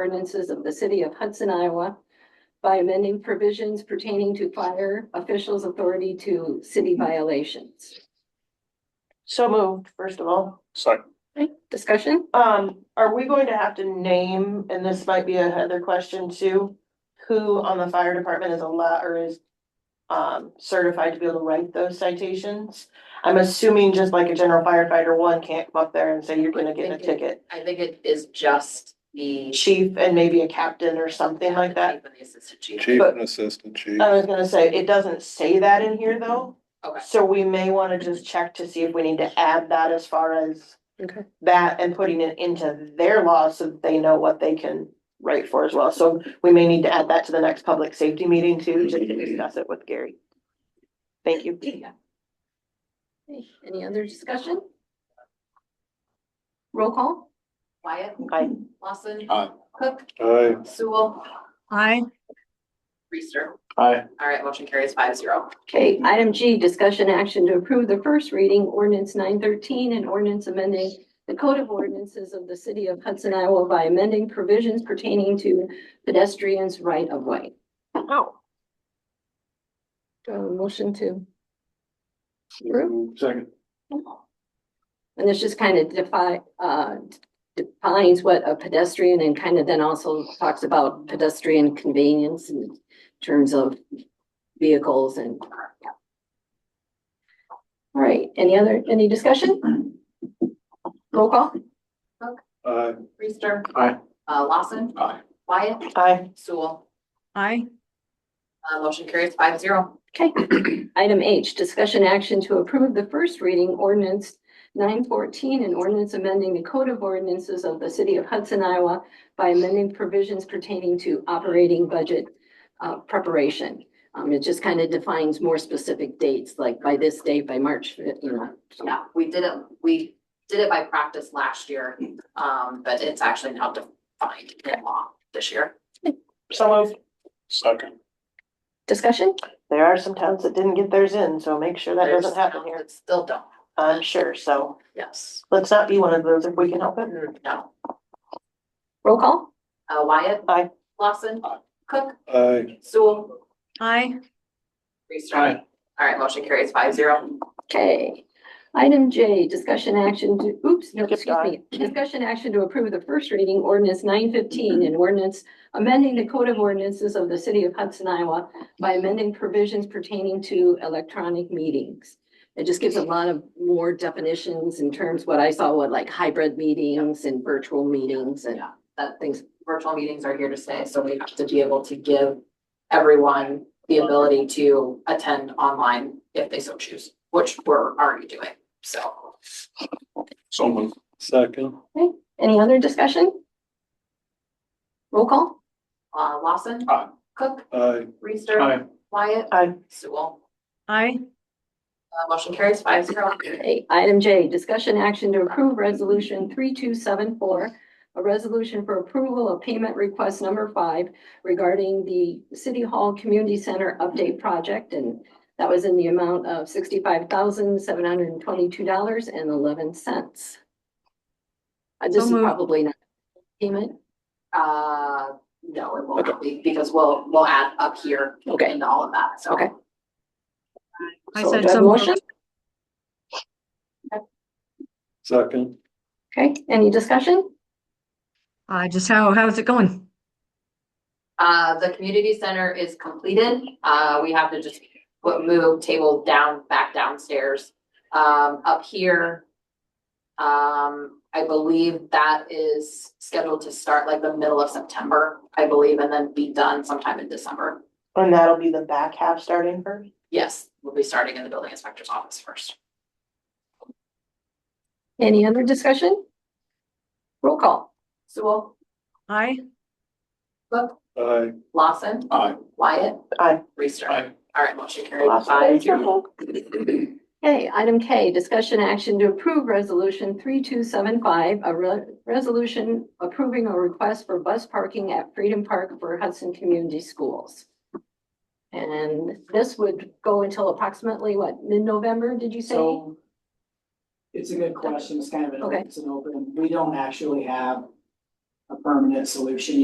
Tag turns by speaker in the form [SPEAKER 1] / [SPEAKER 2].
[SPEAKER 1] ordinances of the city of Hudson, Iowa by amending provisions pertaining to fire officials' authority to city violations.
[SPEAKER 2] So moved, first of all.
[SPEAKER 3] Second,
[SPEAKER 1] Okay, Discussion?
[SPEAKER 2] Um, are we going to have to name, and this might be a Heather question too, who on the fire department is allowed or is um, certified to be able to write those citations? I'm assuming just like a general firefighter, one can't come up there and say, you're gonna get a ticket.
[SPEAKER 4] I think it is just the.
[SPEAKER 2] Chief and maybe a captain or something like that.
[SPEAKER 4] The assistant chief.
[SPEAKER 3] chief and assistant chief.
[SPEAKER 2] I was gonna say, it doesn't say that in here though.
[SPEAKER 4] Okay.
[SPEAKER 2] So we may wanna just check to see if we need to add that as far as.
[SPEAKER 1] Okay.
[SPEAKER 2] That and putting it into their law so that they know what they can write for as well. So we may need to add that to the next public safety meeting too, just to discuss it with Gary. Thank you.
[SPEAKER 1] Okay, Any other discussion? Roll call?
[SPEAKER 4] Wyatt,
[SPEAKER 2] Aye.
[SPEAKER 4] Lawson.
[SPEAKER 3] Aye.
[SPEAKER 4] Cook,
[SPEAKER 3] Aye.
[SPEAKER 4] Sewell,
[SPEAKER 5] aye,
[SPEAKER 4] Reister.
[SPEAKER 3] Aye.
[SPEAKER 4] All right, motion carries five zero.
[SPEAKER 1] Okay, item G, discussion action to approve the first reading ordinance nine thirteen and ordinance amending the code of ordinances of the city of Hudson, Iowa by amending provisions pertaining to pedestrians' right of way.
[SPEAKER 2] Oh,
[SPEAKER 1] Do I have a motion to,
[SPEAKER 3] Second.
[SPEAKER 1] and this just kind of define, uh, defines what a pedestrian and kind of then also talks about pedestrian convenience in terms of vehicles and. yeah. All right, any other, any discussion? Roll call?
[SPEAKER 3] Aye.
[SPEAKER 4] Reister.
[SPEAKER 3] Aye.
[SPEAKER 4] Uh, Lawson,
[SPEAKER 3] Aye.
[SPEAKER 4] Wyatt,
[SPEAKER 2] aye,
[SPEAKER 4] Sewell,
[SPEAKER 5] aye,
[SPEAKER 4] uh, motion carries five zero.
[SPEAKER 1] Okay, item H, discussion action to approve the first reading ordinance nine fourteen and ordinance amending the code of ordinances of the city of Hudson, Iowa by amending provisions pertaining to operating budget uh, preparation. Um, it just kind of defines more specific dates, like by this date, by March, fif- you know.
[SPEAKER 4] Yeah, we did it, we did it by practice last year, um, but it's actually now defined in law this year.
[SPEAKER 2] some of,
[SPEAKER 3] Second.
[SPEAKER 1] Discussion?
[SPEAKER 2] there are some towns that didn't get theirs in, so make sure that
[SPEAKER 4] There's
[SPEAKER 2] doesn't happen
[SPEAKER 4] some
[SPEAKER 2] here.
[SPEAKER 4] that Still don't,
[SPEAKER 2] I'm sure, so
[SPEAKER 4] yes, Mm,
[SPEAKER 2] let's not be one of those if we can help it.
[SPEAKER 4] no.
[SPEAKER 1] Roll call?
[SPEAKER 4] Uh, Wyatt.
[SPEAKER 2] Aye.
[SPEAKER 4] Lawson.
[SPEAKER 3] Aye.
[SPEAKER 4] Cook,
[SPEAKER 3] Aye.
[SPEAKER 4] Sewell,
[SPEAKER 5] aye,
[SPEAKER 4] Reister. All right, motion carries five zero.
[SPEAKER 1] Okay. Item J, discussion action to, oops, no,
[SPEAKER 2] You can
[SPEAKER 1] excuse me. Discussion action to approve the first reading ordinance nine fifteen and ordinance amending the code of ordinances of the city of Hudson, Iowa by amending provisions pertaining to electronic meetings. It just gives a lot of more definitions in terms what I saw, what like hybrid meetings and virtual meetings and
[SPEAKER 4] Yeah. That
[SPEAKER 1] things.
[SPEAKER 4] virtual meetings are here to stay, so we have to be able to give everyone the ability to attend online if they so choose, which we're already doing, so.
[SPEAKER 3] So moved. Second.
[SPEAKER 1] Any other discussion? Roll call?
[SPEAKER 4] Uh, Lawson.
[SPEAKER 3] Aye.
[SPEAKER 4] Cook,
[SPEAKER 3] Aye.
[SPEAKER 4] Reister. Wyatt.
[SPEAKER 2] Aye.
[SPEAKER 4] Sewell.
[SPEAKER 5] aye,
[SPEAKER 4] Uh, motion carries five zero.
[SPEAKER 1] Okay, item J, discussion action to approve resolution three two seven four. A resolution for approval of payment request number five regarding the City Hall Community Center update project. And that was in the amount of sixty-five thousand, seven hundred and twenty-two dollars and eleven cents. Uh, This is
[SPEAKER 5] moved.
[SPEAKER 1] probably not payment.
[SPEAKER 4] Uh, no, it will not be, because we'll, we'll add up here
[SPEAKER 1] Okay,
[SPEAKER 4] into all of that, so.
[SPEAKER 1] Okay.
[SPEAKER 5] I
[SPEAKER 1] so
[SPEAKER 5] said
[SPEAKER 1] do I have a
[SPEAKER 5] so moved.
[SPEAKER 1] motion?
[SPEAKER 3] Second.
[SPEAKER 1] Okay, any discussion?
[SPEAKER 5] uh, just how, how's it going?
[SPEAKER 4] Uh, the community center is completed. Uh, we have to just put, move table down, back downstairs. Um, up here. Um, I believe that is scheduled to start like the middle of September, I believe, and then be done sometime in December.
[SPEAKER 2] And that'll be the back half starting first.
[SPEAKER 4] Yes, we'll be starting in the building inspector's office first.
[SPEAKER 1] Any other discussion? Roll call.
[SPEAKER 4] Sewell,
[SPEAKER 5] Aye,
[SPEAKER 4] Cook,
[SPEAKER 3] Aye.
[SPEAKER 4] Lawson,
[SPEAKER 3] Aye.
[SPEAKER 4] Wyatt.
[SPEAKER 2] Aye.
[SPEAKER 4] Reister.
[SPEAKER 3] Aye.
[SPEAKER 4] All right, motion carried
[SPEAKER 2] Last
[SPEAKER 4] five
[SPEAKER 2] page.
[SPEAKER 4] zero.
[SPEAKER 1] Okay, item K, discussion action to approve resolution three two seven five, a re- resolution approving a request for bus parking at Freedom Park for Hudson Community Schools. And this would go until approximately what, mid-November, did you say?
[SPEAKER 6] So. It's a good question, it's kind of an,
[SPEAKER 1] Okay.
[SPEAKER 6] it's an open, we don't actually have a permanent solution